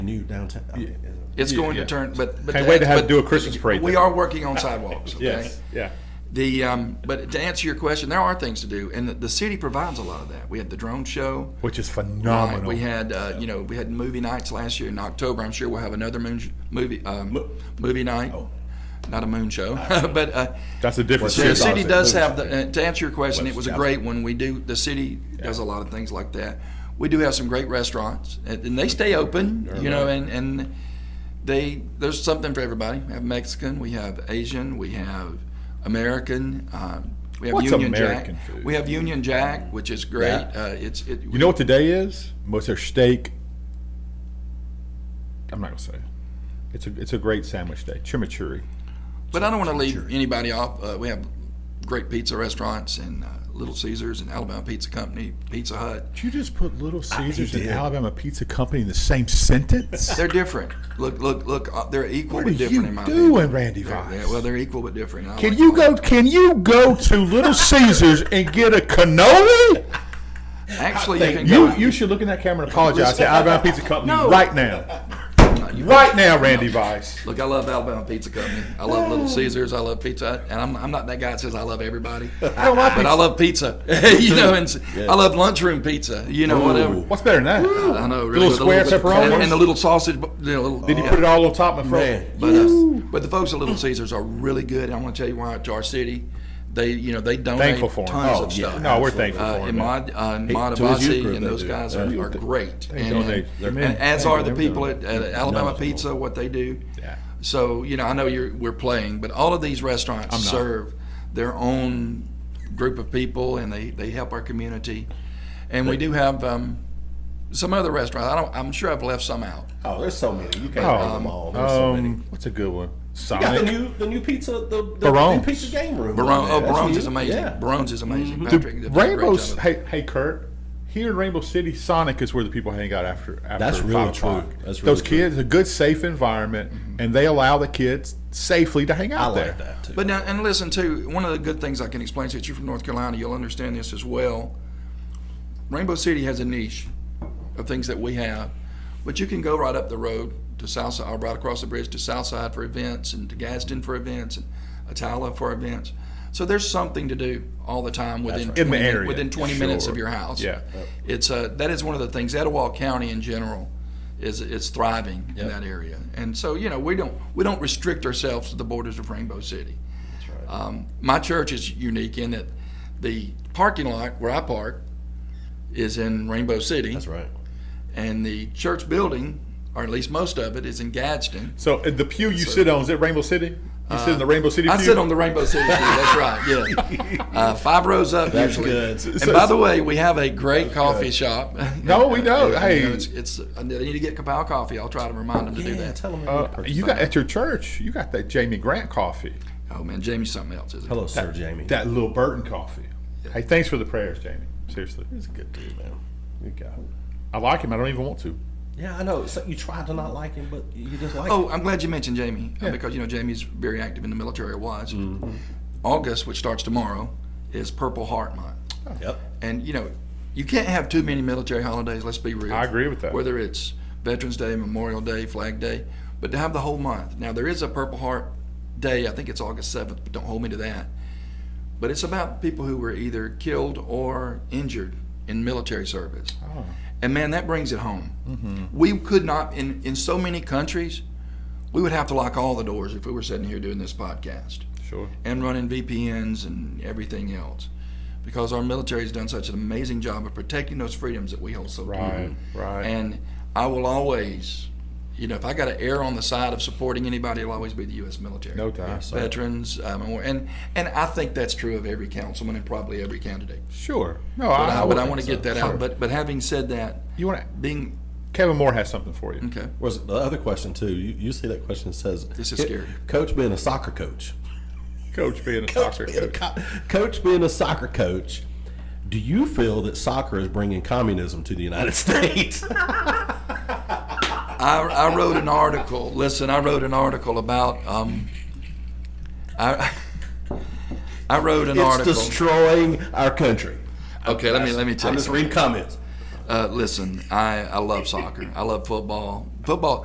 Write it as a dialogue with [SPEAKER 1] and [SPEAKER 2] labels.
[SPEAKER 1] new downtown. I mean, is
[SPEAKER 2] It's going
[SPEAKER 3] Yeah.
[SPEAKER 2] to turn, but. but
[SPEAKER 3] Can't wait to have,
[SPEAKER 2] but
[SPEAKER 3] do a Christmas parade.
[SPEAKER 2] We
[SPEAKER 3] there.
[SPEAKER 2] are working on sidewalks, okay?
[SPEAKER 3] Yes, yeah.
[SPEAKER 2] The, um, but to answer your question, there are things to do, and the, the city provides a lot of that. We had the drone show.
[SPEAKER 3] Which is
[SPEAKER 2] Right,
[SPEAKER 3] phenomenal.
[SPEAKER 2] We had, uh, you know, we had movie nights last year in October. I'm sure we'll have another moon, sh- movie, uh, movie night. Not a moon show, but, uh,
[SPEAKER 3] oh. That's the difference.
[SPEAKER 2] the
[SPEAKER 3] too,
[SPEAKER 2] city
[SPEAKER 3] obviously.
[SPEAKER 2] does have, the. uh, to answer your question, it was a great one. We do, the city does a lot of things like that. We do have some great restaurants, and and they stay
[SPEAKER 3] Mm-hmm.
[SPEAKER 2] open, you know, and, and they, there's something for everybody. We have Mexican, we have Asian, we have American, um, we have
[SPEAKER 3] What's
[SPEAKER 2] Union Jack.
[SPEAKER 3] American food?
[SPEAKER 2] We have Union Jack, which is great.
[SPEAKER 3] Yeah.
[SPEAKER 2] Uh, It's, it.
[SPEAKER 3] You know what today is? What's their steak? I'm not gonna say. it. It's a it's a great sandwich day. Chimichurri.
[SPEAKER 2] But I don't want to leave anybody off. Uh, we have great pizza restaurants and uh, Little Caesars and Alabama Pizza Company, Pizza Hut.
[SPEAKER 3] Did you just put Little Caesars and
[SPEAKER 1] did.
[SPEAKER 3] Alabama Pizza Company in the same sentence?
[SPEAKER 2] They're different. Look, look, look. Uh, they're equal
[SPEAKER 3] What are
[SPEAKER 2] but different in
[SPEAKER 3] you
[SPEAKER 2] my
[SPEAKER 3] doing,
[SPEAKER 2] opinion.
[SPEAKER 3] Randy
[SPEAKER 2] They're-
[SPEAKER 3] Vines?
[SPEAKER 2] they're- well, they're equal but different. and I
[SPEAKER 3] Can
[SPEAKER 2] like
[SPEAKER 3] you
[SPEAKER 2] them.
[SPEAKER 3] go? Can you go to Little Caesars and get a cannoli?
[SPEAKER 2] Actually, you can
[SPEAKER 3] You
[SPEAKER 2] go.
[SPEAKER 3] you should look in that camera and apologize to Alabama Pizza Company
[SPEAKER 2] No.
[SPEAKER 3] right now,
[SPEAKER 2] No, you-
[SPEAKER 3] right now, Randy Vice.
[SPEAKER 2] Look, I love Alabama Pizza Company. I love Little Caesars. I love Pizza Hut. And I'm, I'm not that guy that says I love everybody. I
[SPEAKER 3] don't like
[SPEAKER 2] But I love pizza. you know, and s- I love lunchroom pizza. You know, whatever.
[SPEAKER 3] What's better than that?
[SPEAKER 2] I know. Really,
[SPEAKER 3] Little
[SPEAKER 2] with a
[SPEAKER 3] square
[SPEAKER 2] bit-
[SPEAKER 3] pepperonis?
[SPEAKER 2] And, and the little sausage. bu- You know, little,
[SPEAKER 3] Did you put it all on top and front?
[SPEAKER 1] Oh, Man.
[SPEAKER 2] But, uh, but the folks at Little Caesars are really good. And I want to tell you why. To our city, they you know they donate
[SPEAKER 3] Thankful for 'em.
[SPEAKER 2] tons
[SPEAKER 1] Oh,
[SPEAKER 2] of
[SPEAKER 1] yeah.
[SPEAKER 2] stuff.
[SPEAKER 3] No, we're thankful
[SPEAKER 2] Uh,
[SPEAKER 3] for
[SPEAKER 2] and
[SPEAKER 3] him. man.
[SPEAKER 2] Mod, uh, and
[SPEAKER 1] Hey,
[SPEAKER 2] Mod
[SPEAKER 1] to his youth
[SPEAKER 2] Abbasi
[SPEAKER 1] group,
[SPEAKER 2] and
[SPEAKER 1] they
[SPEAKER 2] those
[SPEAKER 1] do.
[SPEAKER 2] guys
[SPEAKER 3] Yeah.
[SPEAKER 2] are, are great.
[SPEAKER 3] They
[SPEAKER 2] And,
[SPEAKER 3] donate.
[SPEAKER 2] and-
[SPEAKER 3] They're
[SPEAKER 2] and
[SPEAKER 3] men.
[SPEAKER 2] as
[SPEAKER 3] They
[SPEAKER 2] are
[SPEAKER 3] do
[SPEAKER 2] the people at, at
[SPEAKER 3] everything.
[SPEAKER 2] Alabama Pizza, what they do.
[SPEAKER 3] Yeah.
[SPEAKER 2] So you know, I know you're we're playing, but all of these restaurants
[SPEAKER 3] I'm not.
[SPEAKER 2] serve their own group of people, and they they help our community. And we do have um, some other restaurants. I don't. I'm sure I've left some out.
[SPEAKER 1] Oh, there's so many. You can't
[SPEAKER 3] Oh,
[SPEAKER 1] count them all. There's so many.
[SPEAKER 3] um, what's a good one?
[SPEAKER 1] You got the
[SPEAKER 3] Sonic.
[SPEAKER 1] new the new pizza the, the
[SPEAKER 3] Barone's.
[SPEAKER 1] new pizza game room.
[SPEAKER 2] Barone, oh,
[SPEAKER 1] on there. That's
[SPEAKER 2] Barone's
[SPEAKER 1] new.
[SPEAKER 2] is amazing.
[SPEAKER 1] Yeah.
[SPEAKER 2] Barone's is amazing. Patrick, did a great
[SPEAKER 3] Mm-hmm. Rainbow.
[SPEAKER 2] job of it.
[SPEAKER 3] Hey, hey, Kurt. Here in Rainbow City, Sonic is where the people hang out after after
[SPEAKER 1] That's
[SPEAKER 3] five
[SPEAKER 1] really true.
[SPEAKER 3] o'clock.
[SPEAKER 1] That's
[SPEAKER 3] Those
[SPEAKER 1] really true. Mm-hmm.
[SPEAKER 3] kids, a good safe environment, and they allow the kids safely to hang
[SPEAKER 1] I
[SPEAKER 3] out there.
[SPEAKER 1] like that too.
[SPEAKER 2] But now, and listen too. One of the good things I can explain to you, you're from North Carolina, you'll understand this as well. Rainbow City has a niche of things that we have, but you can go right up the road to Southside, or right across the bridge to Southside for events, and to Gadsden for events, and Atala for events. So there's something to do all the time within
[SPEAKER 3] In the
[SPEAKER 2] 20
[SPEAKER 3] area,
[SPEAKER 2] within 20 minutes
[SPEAKER 3] sure.
[SPEAKER 2] of your house.
[SPEAKER 3] Yeah.
[SPEAKER 2] it's uh, that is one of the things. Etowah County in general is is thriving in that area, and so you know we don't we don't restrict ourselves to the borders of Rainbow City. Um, my church is unique in that the parking lot where I park is in Rainbow City,
[SPEAKER 1] That's right.
[SPEAKER 2] and the church building, or at least most of it, is in Gadsden.
[SPEAKER 3] So uh, the pew you sit on is it Rainbow City? You sit in
[SPEAKER 1] Uh,
[SPEAKER 3] the Rainbow City.
[SPEAKER 2] I
[SPEAKER 3] pew?
[SPEAKER 2] sit on the Rainbow City. pew, That's right. Yeah, uh, five rows up
[SPEAKER 1] That's
[SPEAKER 2] usually.
[SPEAKER 1] good.
[SPEAKER 2] And
[SPEAKER 3] So-
[SPEAKER 2] by the way, we have a great coffee shop.
[SPEAKER 3] No, we know.
[SPEAKER 2] You
[SPEAKER 3] Hey.
[SPEAKER 2] it's, it's I need to get Kapow coffee. I'll try to remind them to do
[SPEAKER 1] Yeah,
[SPEAKER 2] that.
[SPEAKER 1] tell them.
[SPEAKER 3] Uh, you got at your church. You got that Jamie Grant coffee,
[SPEAKER 2] Oh man, Jamie's something else, isn't he?
[SPEAKER 1] hello, Sir Jamie.
[SPEAKER 3] that Lil Burton coffee. Hey, thanks for the prayers, Jamie. Seriously,
[SPEAKER 1] He's a good dude, man. Good guy.
[SPEAKER 3] I like him. I don't even want to.
[SPEAKER 1] Yeah, I know. So you tried to not like him, but you just like him.
[SPEAKER 2] Oh, I'm glad you mentioned Jamie uh, because you know Jamie's very active in the military. or Was
[SPEAKER 3] Mm-hmm.
[SPEAKER 2] August, which starts tomorrow, is Purple Heart Month,
[SPEAKER 1] Yep.
[SPEAKER 2] and you know you can't have too many military holidays. Let's be real.
[SPEAKER 3] I agree with that.
[SPEAKER 2] Whether it's Veterans Day, Memorial Day, Flag Day, but to have the whole month. Now there is a Purple Heart Day. I think it's August 7th, but don't hold me to that. But it's about people who were either killed or injured in military service.
[SPEAKER 1] Oh.
[SPEAKER 2] And man, that brings it home.
[SPEAKER 3] Mm-hmm.
[SPEAKER 2] We could not, in, in so many countries, we would have to lock all the doors if we were sitting here doing this podcast
[SPEAKER 3] Sure.
[SPEAKER 2] and running VPNs and everything else because our military has done such an amazing job of protecting those freedoms that we hold so dear.
[SPEAKER 3] Right, right.
[SPEAKER 2] And I will always, you know, if I got to err on the side of supporting anybody, it'll always be the U.S. military.
[SPEAKER 3] No doubt. Yes, sir.
[SPEAKER 2] Veterans, um, or- and and I think that's true of every councilman and probably every candidate.
[SPEAKER 3] Sure. No,
[SPEAKER 2] But
[SPEAKER 3] I,
[SPEAKER 2] I, but I
[SPEAKER 3] would-
[SPEAKER 2] want to get that
[SPEAKER 3] Sure.
[SPEAKER 2] out. But but having said that,
[SPEAKER 3] You want to?
[SPEAKER 2] being
[SPEAKER 3] Kevin Moore has something for you.
[SPEAKER 2] okay,
[SPEAKER 1] Was the other question too? You, you see that question says
[SPEAKER 2] This is
[SPEAKER 1] "Co-
[SPEAKER 2] scary.
[SPEAKER 1] Coach being a soccer coach.
[SPEAKER 3] Coach being a soccer
[SPEAKER 1] Being a
[SPEAKER 3] coach.
[SPEAKER 1] co- coach being a soccer coach. Do you feel that soccer is bringing communism to the United States?
[SPEAKER 2] I, I wrote an article. Listen, I wrote an article about um, I I wrote an
[SPEAKER 1] it's
[SPEAKER 2] article.
[SPEAKER 1] destroying our country.
[SPEAKER 2] Okay, let me let me tell
[SPEAKER 1] I'm
[SPEAKER 2] you.
[SPEAKER 1] just
[SPEAKER 2] something.
[SPEAKER 1] reading comments.
[SPEAKER 2] Uh, listen, I, I love soccer. I love football. Football